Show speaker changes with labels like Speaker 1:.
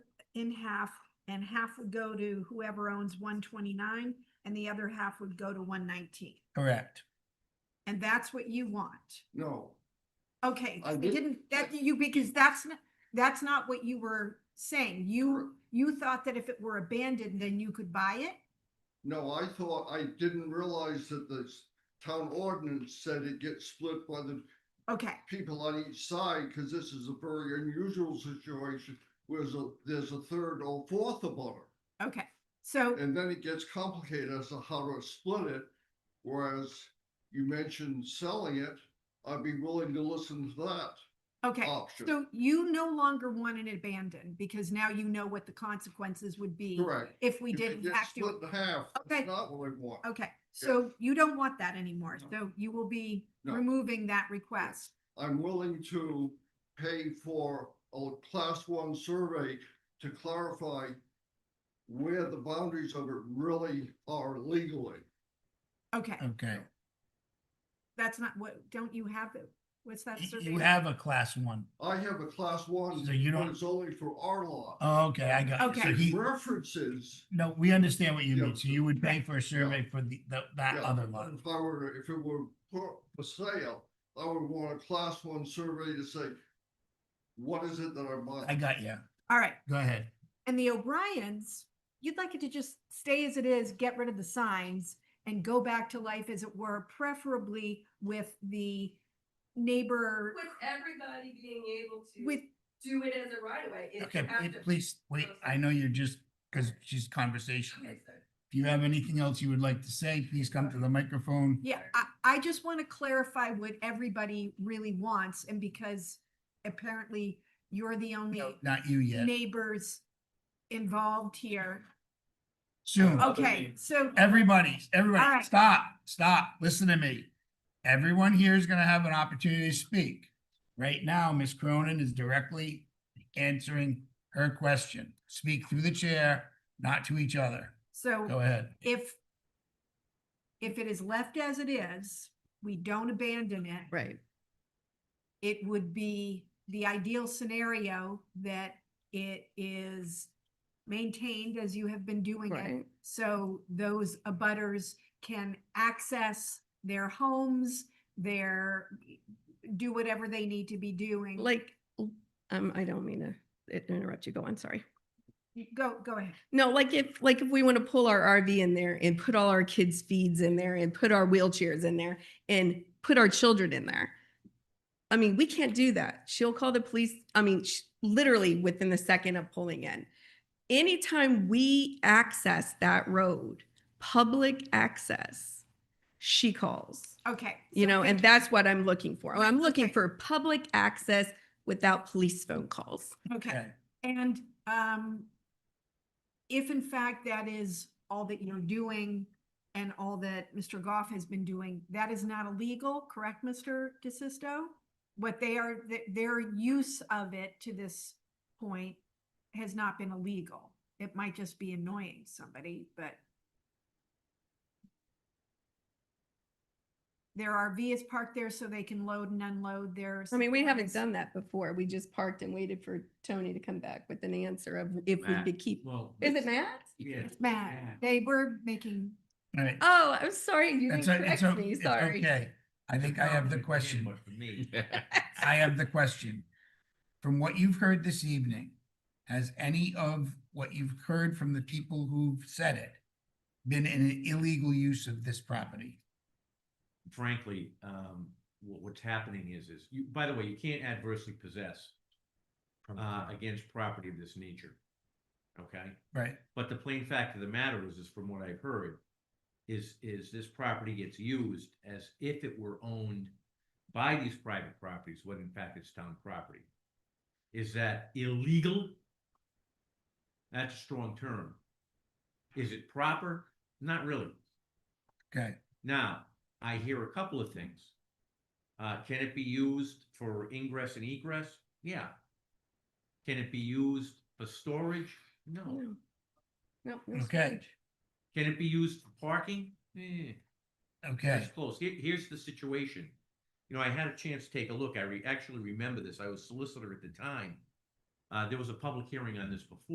Speaker 1: in half, and half would go to whoever owns one twenty-nine, and the other half would go to one nineteen.
Speaker 2: Correct.
Speaker 1: And that's what you want.
Speaker 3: No,
Speaker 1: Okay,
Speaker 3: I
Speaker 1: I
Speaker 3: did-
Speaker 1: didn't, that you, because that's not, that's not what you were saying. You, you thought that if it were abandoned, then you could buy it?
Speaker 3: no, I thought, I didn't realize that the s- town ordinance said it gets split by the
Speaker 1: Okay,
Speaker 3: people on each side, because this is a very unusual situation, whereas a- there's a third or fourth about it.
Speaker 1: okay. So,
Speaker 3: And then it gets complicated as to how to split it, whereas you mentioned selling it, I'd be willing to listen to that
Speaker 1: okay.
Speaker 3: option.
Speaker 1: So you no longer want it abandoned because now you know what the consequences would be
Speaker 3: Correct.
Speaker 1: if we
Speaker 3: If it
Speaker 1: didn't
Speaker 3: gets
Speaker 1: have
Speaker 3: Split
Speaker 1: to.
Speaker 3: in half,
Speaker 1: Okay.
Speaker 3: that's not what I want.
Speaker 1: Okay, so you don't want that anymore.
Speaker 3: No.
Speaker 1: So you will be
Speaker 3: No.
Speaker 1: removing that request.
Speaker 3: I'm willing to pay for a class one survey to clarify where the boundaries of it really are legally.
Speaker 1: Okay,
Speaker 2: Okay.
Speaker 1: that's not what, don't you have it? What's that?
Speaker 2: Y-
Speaker 1: survey?
Speaker 2: You have a class one.
Speaker 3: I have a class one,
Speaker 2: So you
Speaker 3: but
Speaker 2: don't-
Speaker 3: it's only for our law.
Speaker 2: Oh, okay, I got it. So
Speaker 1: Okay.
Speaker 2: he,
Speaker 3: References.
Speaker 2: no, we understand what you
Speaker 3: Yeah.
Speaker 2: mean. So you would pay for a survey for the, the- that
Speaker 3: Yeah,
Speaker 2: other
Speaker 3: but
Speaker 2: lot.
Speaker 3: If I were, if it were for for sale, I would want a class one survey to say, what is it that I'm
Speaker 2: I
Speaker 3: buying?
Speaker 2: got you.
Speaker 1: All right,
Speaker 2: Go ahead.
Speaker 1: and the O'Briens, you'd like it to just stay as it is, get rid of the signs and go back to life as it were, preferably with the neighbor
Speaker 4: With everybody being able to.
Speaker 1: with,
Speaker 4: Do it as a right of way. It
Speaker 2: Okay,
Speaker 4: have
Speaker 2: wait,
Speaker 4: to-
Speaker 2: please, wait, I know you're just, because she's conversational.
Speaker 4: Okay, sorry.
Speaker 2: If you have anything else you would like to say, please come to the microphone.
Speaker 1: Yeah, I, I just want to clarify what everybody really wants and because apparently you're the only
Speaker 2: No, Not you yet.
Speaker 1: neighbors involved here.
Speaker 2: Soon.
Speaker 1: Okay, so,
Speaker 2: Everybody,
Speaker 1: All
Speaker 2: everybody,
Speaker 1: right.
Speaker 2: stop, stop, listen to me. Everyone here is gonna have an opportunity to speak. Right now, Ms. Cronin is directly answering her question. Speak through the chair, not to each other. Go
Speaker 1: so
Speaker 2: ahead.
Speaker 1: if if it is left as it is, we don't abandon it.
Speaker 5: Right.
Speaker 1: It would be the ideal scenario that it is maintained as you have been doing it.
Speaker 5: Right.
Speaker 1: So those abutters can access their homes, their, do whatever they need to be doing.
Speaker 5: Like, l- um, I don't mean to i- interrupt you. Go on, sorry.
Speaker 1: You- Go, go ahead.
Speaker 5: No, like if, like if we want to pull our RV in there and put all our kids' feeds in there and put our wheelchairs in there and put our children in there. I mean, we can't do that. She'll call the police, I mean, sh- literally within the second of pulling in. Anytime we access that road, public access, she calls.
Speaker 1: Okay.
Speaker 5: You
Speaker 1: so
Speaker 5: know,
Speaker 1: we-
Speaker 5: and that's what I'm looking for. I'm looking
Speaker 1: okay.
Speaker 5: for public access without police phone calls.
Speaker 1: Okay, and, um, if in fact that is all that you're doing and all that Mr. Goff has been doing, that is not illegal, correct, Mr. DeSisto? What they are, th- their use of it to this point has not been illegal. It might just be annoying somebody, but their RV is parked there so they can load and unload their.
Speaker 5: I mean, we haven't
Speaker 1: supplies.
Speaker 5: done that before. We just parked and waited for Tony to come back with an answer of if we
Speaker 6: Matt.
Speaker 5: could keep.
Speaker 6: Well.
Speaker 5: Is it Matt?
Speaker 6: Yeah.
Speaker 1: Matt, they were making,
Speaker 2: All right.
Speaker 5: Oh, I'm sorry. You didn't
Speaker 2: That's, o- it's
Speaker 5: correct
Speaker 2: o-
Speaker 5: me.
Speaker 2: it's
Speaker 5: Sorry.
Speaker 2: okay. I think I have the question. I have the question. From what you've heard this evening, has any of what you've heard from the people who've said it been an illegal use of this property?
Speaker 6: Frankly, um, what, what's happening is, is you, by the way, you can't adversely possess uh, against property of this nature. Okay,
Speaker 2: Right,
Speaker 6: but the plain fact of the matter is, is from what I've heard, is, is this property gets used as if it were owned by these private properties, when in fact it's town property. Is that illegal? That's a strong term. Is it proper? Not really.
Speaker 2: okay.
Speaker 6: Now, I hear a couple of things. Uh, can it be used for ingress and egress? Yeah. Can it be used for storage? No.
Speaker 5: No. Oh, No, no,
Speaker 2: Okay.
Speaker 5: sorry.
Speaker 6: Can it be used for parking? Eh,
Speaker 2: Okay,
Speaker 6: that's close. Here- here's the situation. You know, I had a chance to take a look. I re- actually remember this. I was solicitor at the time. Uh, there was a public hearing on this before.